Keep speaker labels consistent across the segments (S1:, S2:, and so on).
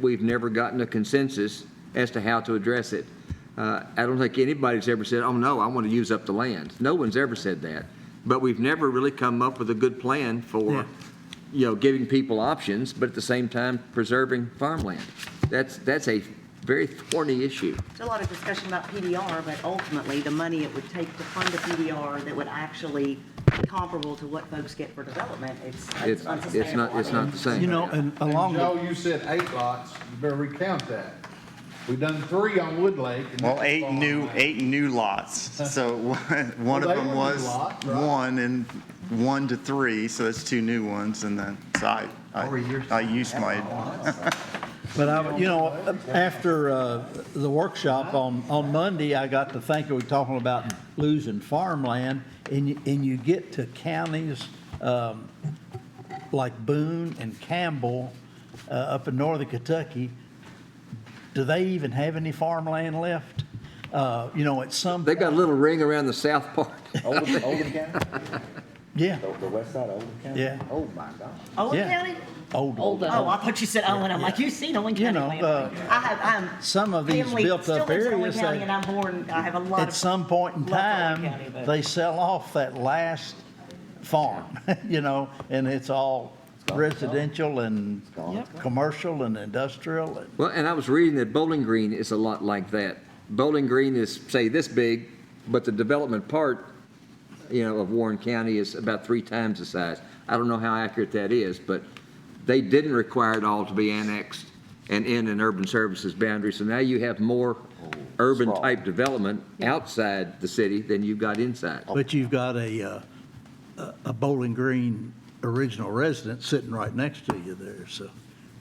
S1: We've never gotten a consensus as to how to address it. Uh, I don't think anybody's ever said, oh, no, I want to use up the land. No one's ever said that. But we've never really come up with a good plan
S2: Yeah.
S1: for, you know, giving people options, but at the same time preserving farmland. That's, that's a very thorny issue.
S3: There's a lot of discussion about PDR, but ultimately, the money it would take to fund a PDR that would actually be comparable to what folks get for development,
S1: It's,
S3: it's it's
S1: it's
S3: unsustainable.
S1: not, it's not the
S2: You
S1: same.
S2: know, and
S4: And
S2: along the,
S4: Joe, you said eight lots, you better recount that. We've done three on Wood Lake. and
S5: Well,
S4: that's
S5: eight
S4: all
S5: new,
S4: I-
S5: eight new lots. So one one
S4: Well,
S5: of
S4: they
S5: them
S4: were new
S5: was
S4: lot, right?
S5: one and one to three, so that's two new ones. And then, so I, I, I used my,
S2: but I, you know, after uh, the workshop on, on Monday, I got to thinking, we're talking about losing farmland, and you, and you get to counties um, like Boone and Campbell uh, up in northern Kentucky, do they even have any farmland left? Uh, You know, at some,
S1: They got a little ring around the south part.
S6: Oldham, Oldham County?
S2: yeah,
S6: The, the west side of Oldham County?
S2: Yeah.
S6: Oh, my God.
S3: Owen
S2: Yeah.
S3: County?
S2: old,
S3: Oh, I thought you said Owen, I'm like, you've seen Owen
S2: you
S3: County.
S2: know,
S3: land."
S2: uh,
S3: I have, I'm.
S2: some of these
S3: family
S2: built up
S3: still lives in Owen
S2: areas,
S3: County,
S2: they-
S3: And I'm born, I have a lot of.
S2: at some point in
S3: love Owen
S2: time,
S3: County, but-
S2: they sell off that last farm, you know, and it's all residential and commercial and industrial. and-
S1: Well, and I was reading that Bowling Green is a lot like that. Bowling Green is, say, this big, but the development part, you know, of Warren County is about three times the size. I don't know how accurate that is, but they didn't require it all to be annexed and in an urban services boundary. So now you have more urban-type development outside the city than you've got inside.
S2: But you've got a, uh, a- a Bowling Green original resident sitting right next to you there, so.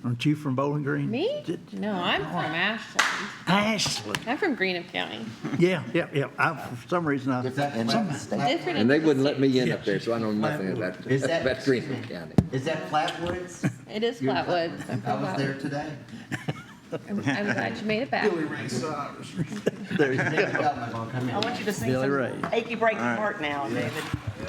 S2: Aren't you from Bowling Green?
S7: Me?
S2: Did-
S7: No, I'm from Ashland.
S2: Ashland,
S7: I'm from Greenup County.
S2: yeah, yeah, yeah. I, for some reason, I,
S6: Is that flat state?
S7: Different
S1: And they wouldn't let me in up there, so I know nothing about,
S6: Is that-
S1: about Greenwood County.
S6: Is that Flatwoods?
S7: It is
S6: You're-
S7: Flatwoods. I'm
S6: I
S7: from
S6: was there
S7: Flatwoods.
S6: today.
S7: I'm I'm glad you made it back.
S2: there you go.
S3: I want you to sing
S2: Billy Ray.
S3: some achy breaky heart now, David.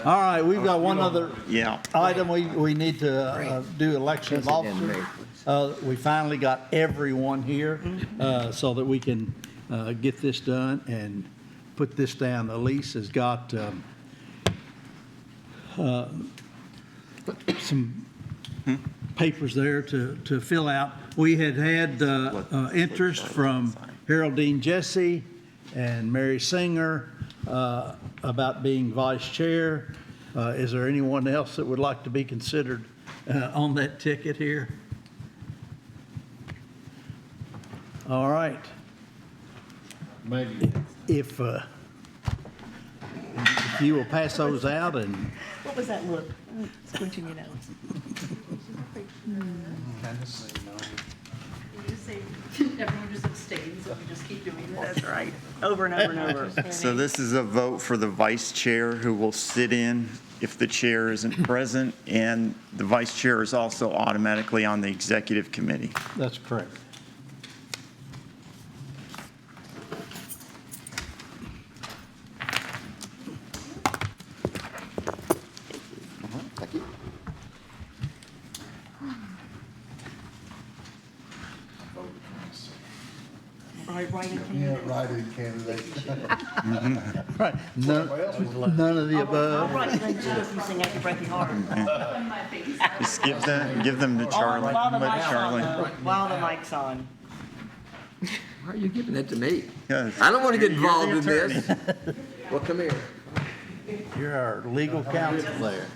S2: All right, we've got one other
S5: yeah.
S2: item, we, we need to uh, do election of
S1: President and
S2: officers.
S1: Mayor,
S2: Uh, We finally got everyone here uh, so that we can uh, get this done and put this down. Elise has got um, uh, some papers there to, to fill out. We had had uh, uh, interest from Haroldine Jesse and Mary Singer uh, about being vice chair. Uh, Is there anyone else that would like to be considered uh, on that ticket here? All right.
S4: Maybe.
S2: If, uh, if you will pass those out and,
S3: What was that look? Squinching your nose.
S8: You say everyone just abstains, so we just keep doing this.
S3: That's right, over and over and over.
S5: So this is a vote for the vice chair who will sit in if the chair isn't present. And the vice chair is also automatically on the executive committee.
S2: that's correct.
S6: Thank you.
S3: Right, right in Canada.
S4: Write-in candidate.
S2: Right. None none of the
S3: I'll
S2: above.
S3: write them too if you sing achy breaky heart.
S5: Just give them, give
S4: Oh,
S5: them to
S3: On,
S5: Charlie.
S3: Oh, while the
S5: Let
S3: mic's on,
S5: Charlie-
S3: though, while the mic's on.
S1: Why are you giving that to me?
S5: Yes.
S1: I don't want to get
S5: You're the
S1: involved in
S5: attorney.
S1: this. Well, come here.
S2: You're our legal counsel there.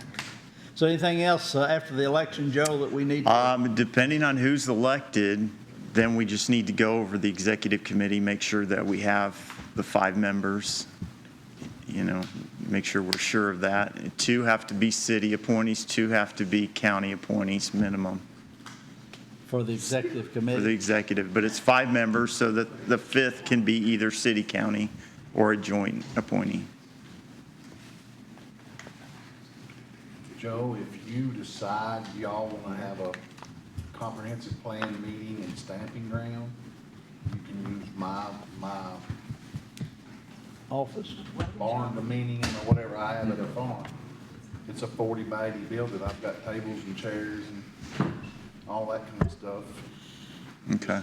S2: So anything else uh, after the election, Joe, that we need? to-
S5: Um, Depending on who's elected, then we just need to go over the executive committee, make sure that we have the five members, you know, make sure we're sure of that. Two have to be city appointees, two have to be county appointees minimum
S2: For the executive
S5: for the
S2: committee?
S5: executive. But it's five members, so that the fifth can be either city, county, or a joint appointee.
S4: Joe, if you decide y'all wanna have a comprehensive plan meeting and stamping ground, you can use my, my
S2: Office?
S4: barn dominium or whatever I have at the farm. It's a forty by eighty building. I've got tables and chairs and all that kind of stuff.
S5: Okay.